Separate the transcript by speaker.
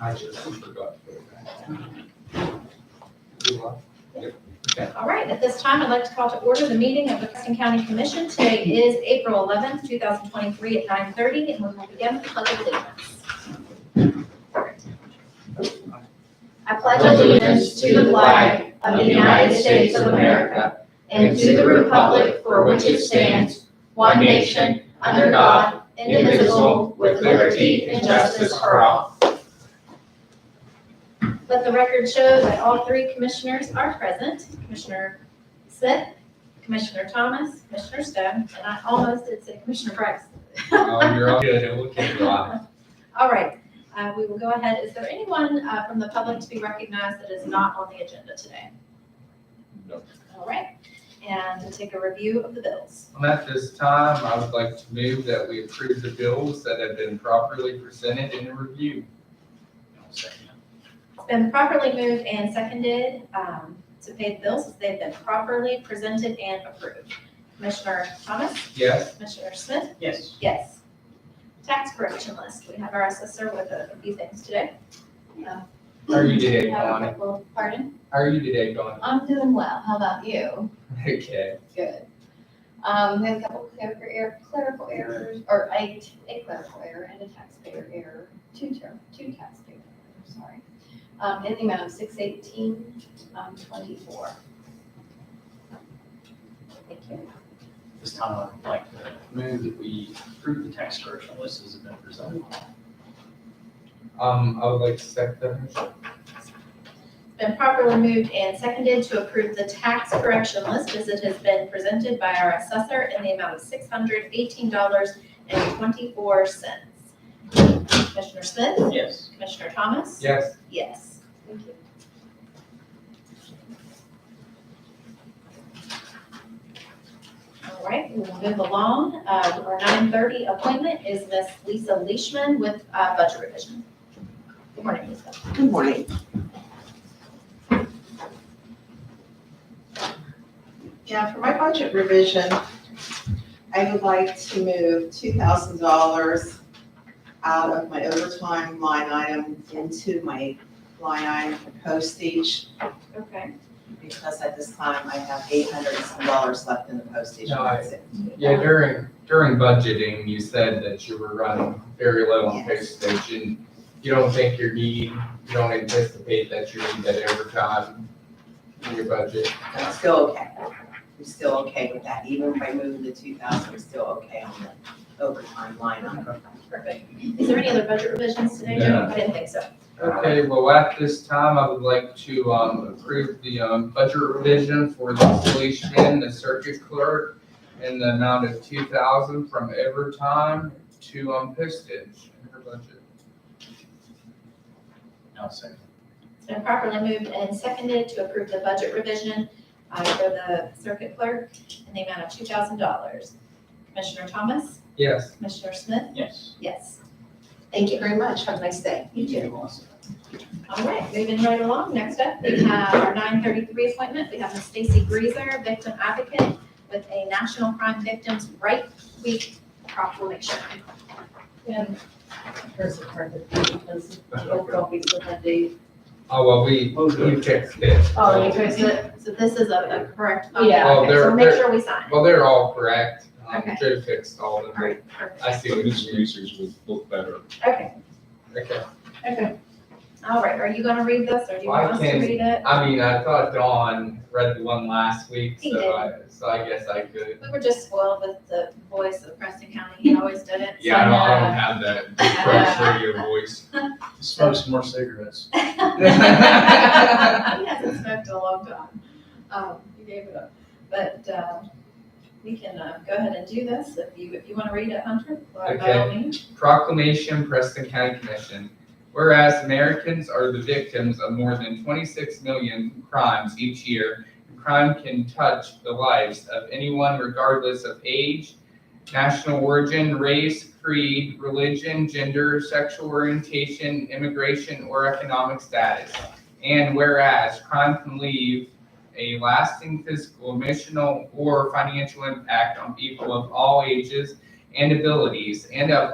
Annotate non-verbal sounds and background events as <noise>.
Speaker 1: I just forgot. to put it back. You are? Yep. Okay.
Speaker 2: All right, at this time, I'd like to call to order the meeting of the Preston County Commission. Today is April 11th, 2023 at 9:30, and we will begin with the pledge of allegiance. I pledge allegiance to the flag of the United States of America and to the republic for which it stands, one nation, under God, indivisible, with liberty and justice for all. Let the record show that all three commissioners are present, Commissioner Smith, Commissioner Thomas, Commissioner Stone, and I almost did say Commissioner Braxton.
Speaker 1: Um, You're all good, and we'll keep going.
Speaker 2: <laughs> All right, uh, we will go ahead. Is there anyone uh, from the public to be recognized that is not on the agenda today?
Speaker 1: No.
Speaker 2: All right, and to take a review of the bills.
Speaker 1: And At this time, I would like to move that we approve the bills that have been properly presented and reviewed.
Speaker 2: It's been properly moved and seconded um, to pay the bills as they've been properly presented and approved. Commissioner Thomas,
Speaker 1: Yes,
Speaker 2: Commissioner Smith,
Speaker 3: Yes.
Speaker 2: yes. Tax correction list, we have our assessor with a a few things today. Uh,
Speaker 1: how are you today,
Speaker 2: have a
Speaker 1: Bonnie?
Speaker 2: couple- Pardon?
Speaker 1: How are you today, Bonnie? <laughs>
Speaker 4: I'm doing well. How about you?
Speaker 1: Okay,
Speaker 4: Good. Um, we have a couple clerical error, clerical errors, or a, a clerical error and a taxpayer error, two term, two taxpayer, errors, sorry. Um, in the amount of six eighteen, um, twenty-four.
Speaker 2: Thank you.
Speaker 3: This time I'd like to move that we approve the tax correction list as it's been presented.
Speaker 1: um, I would like to second that. motion.
Speaker 2: Been properly moved and seconded to approve the tax correction list as it has been presented by our assessor in the amount of six hundred eighteen dollars and twenty-four cents. Commissioner Smith?
Speaker 3: Yes.
Speaker 2: Commissioner Thomas?
Speaker 1: Yes,
Speaker 2: Yes.
Speaker 4: Thank you.
Speaker 2: All right, we will move along. Uh, Our nine thirty appointment is Miss Lisa Leishman with uh, Budget Revision. Good morning, Lisa.
Speaker 5: Good morning. Yeah, for my budget revision, I would like to move two thousand dollars out of my overtime line item into my line item for postage,
Speaker 2: Okay.
Speaker 5: because at this time I have eight hundred and some dollars left in the postage.
Speaker 1: No, I-
Speaker 5: That's it.
Speaker 1: yeah, during, during budgeting, you said that you were running very low on pay station. You don't think your need, you don't anticipate that you need that overtime in your budget?
Speaker 5: I'm still okay. I'm still okay with that, even if I move the two thousand, I'm still okay on the overtime line item.
Speaker 2: Perfect. Is there any other budget revisions today, Joe?
Speaker 1: No.
Speaker 2: I didn't think so.
Speaker 1: Okay, well, at this time, I would like to um, approve the um, budget revision for Lisa Leishman, the circuit clerk, in the amount of two thousand from overtime to um, postage in her budget.
Speaker 3: Now second.
Speaker 2: It's been properly moved and seconded to approve the budget revision uh, for the circuit clerk in the amount of two thousand dollars. Commissioner Thomas?
Speaker 1: Yes,
Speaker 2: Commissioner Smith?
Speaker 3: Yes.
Speaker 2: Yes.
Speaker 4: Thank you very much. Have a nice day.
Speaker 2: You too.
Speaker 3: Melissa.
Speaker 2: All right, moving right along. Next up, we have our nine thirty-three appointment. We have Ms. Stacy Greaser, victim advocate with a National Crime Victims' Right Week proclamation.
Speaker 6: And hers are part of it because both copies of that date.
Speaker 1: oh, well, we, you fixed it.
Speaker 6: Oh, you
Speaker 2: So so this is a a correct.
Speaker 6: Yeah.
Speaker 1: Oh,
Speaker 2: Okay, So
Speaker 1: they're-
Speaker 2: make
Speaker 1: they're-
Speaker 2: sure we sign.
Speaker 1: Well, they're all correct. Um,
Speaker 2: Okay.
Speaker 1: Joe fixed all of
Speaker 2: All
Speaker 1: them.
Speaker 2: right, perfect.
Speaker 1: I see
Speaker 7: But
Speaker 1: what
Speaker 7: his
Speaker 1: you mean.
Speaker 7: users would look better.
Speaker 2: Okay,
Speaker 1: Okay,
Speaker 6: Okay.
Speaker 2: all right. Are you going to read this or do you
Speaker 1: Well, I
Speaker 2: want us to
Speaker 1: can-
Speaker 2: read it?
Speaker 1: I mean, I thought Dawn read the one last week,
Speaker 2: He
Speaker 1: so
Speaker 2: did.
Speaker 1: I, so I guess I could.
Speaker 2: We were just spoiled with the voice of Preston County. He always did it.
Speaker 7: Yeah, I don't, I don't have that deep
Speaker 2: Uh,
Speaker 7: fresh radio voice.
Speaker 3: Smoke some more cigarettes.
Speaker 2: He hasn't smoked in a long time. Um, he gave it up. But, uh, we can, uh, go ahead and do this if you, if you want to read it, Hunter, by by all means.
Speaker 1: Proclamation Preston County Commission. Whereas Americans are the victims of more than 26 million crimes each year, crime can touch the lives of anyone regardless of age, national origin, race, creed, religion, gender, sexual orientation, immigration, or economic status. And whereas crime can leave a lasting physical, emotional, or financial impact on people of all ages and abilities and of